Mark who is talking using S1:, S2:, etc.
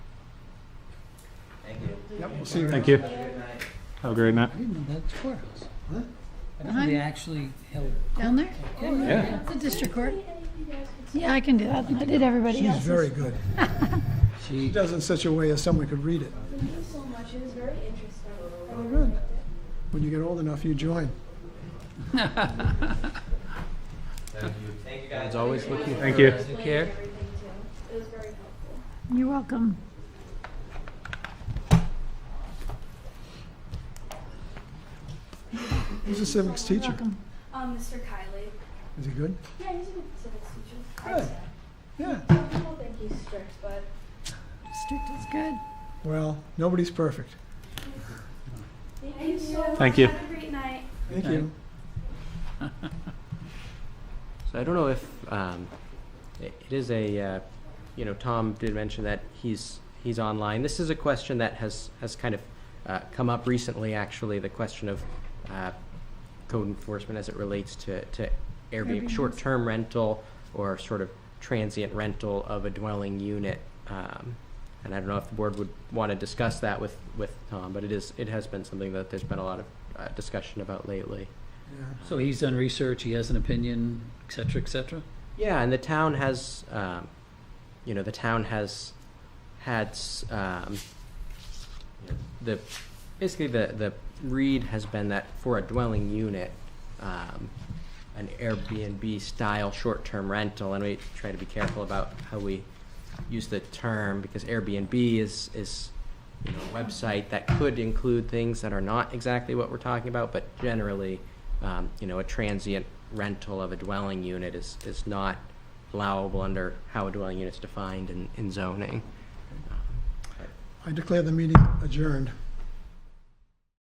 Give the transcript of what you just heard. S1: Yep, we'll see you.
S2: Thank you. Have a great night.
S3: I didn't know that courthouse.
S1: Huh?
S3: I didn't know they actually held.
S4: Down there?
S2: Yeah.
S4: The district court? Yeah, I can do that. I did everybody
S1: She's
S4: else's.
S1: very good. She
S3: She,
S1: does it in such a way as someone could read it.
S5: Thank you so much. It was very interesting.
S1: Oh, good. When you get old enough, you join.
S6: As always, looking
S2: Thank you.
S6: for new care.
S5: Everything too. It was very helpful.
S4: You're welcome.
S1: Who's the civics teacher?
S4: Welcome.
S5: Um, Mr. Kiley.
S1: Is he good?
S5: Yeah, he's a good civics teacher.
S1: Good. Yeah.
S5: I don't think he's strict, but
S4: Strict is good.
S1: Well, nobody's perfect.
S5: thank you so much.
S2: Thank you.
S5: Have a great night.
S1: Thank you.
S6: So I don't know if um, i- it is a, uh, you know, Tom did mention that he's he's online. This is a question that has has kind of uh, come up recently, actually, the question of uh, code enforcement as it relates to to Airbnb,
S4: Airbnbs.
S6: short-term rental or sort of transient rental of a dwelling unit. Um, and I don't know if the board would want to discuss that with with Tom, but it is it has been something that there's been a lot of uh, discussion about lately.
S1: Yeah.
S3: so he's done research, he has an opinion, et cetera, et cetera?
S6: Yeah, and the town has, um, you know, the town has had, s- um, the, basically the, the read has been that for a dwelling unit, um, an Airbnb style short-term rental, and we try to be careful about how we use the term, because Airbnb is, is, you know, a website that could include things that are not exactly what we're talking about, but generally, um, you know, a transient rental of a dwelling unit is, is not allowable under how a dwelling unit's defined in, in zoning.
S1: I declare the meeting adjourned.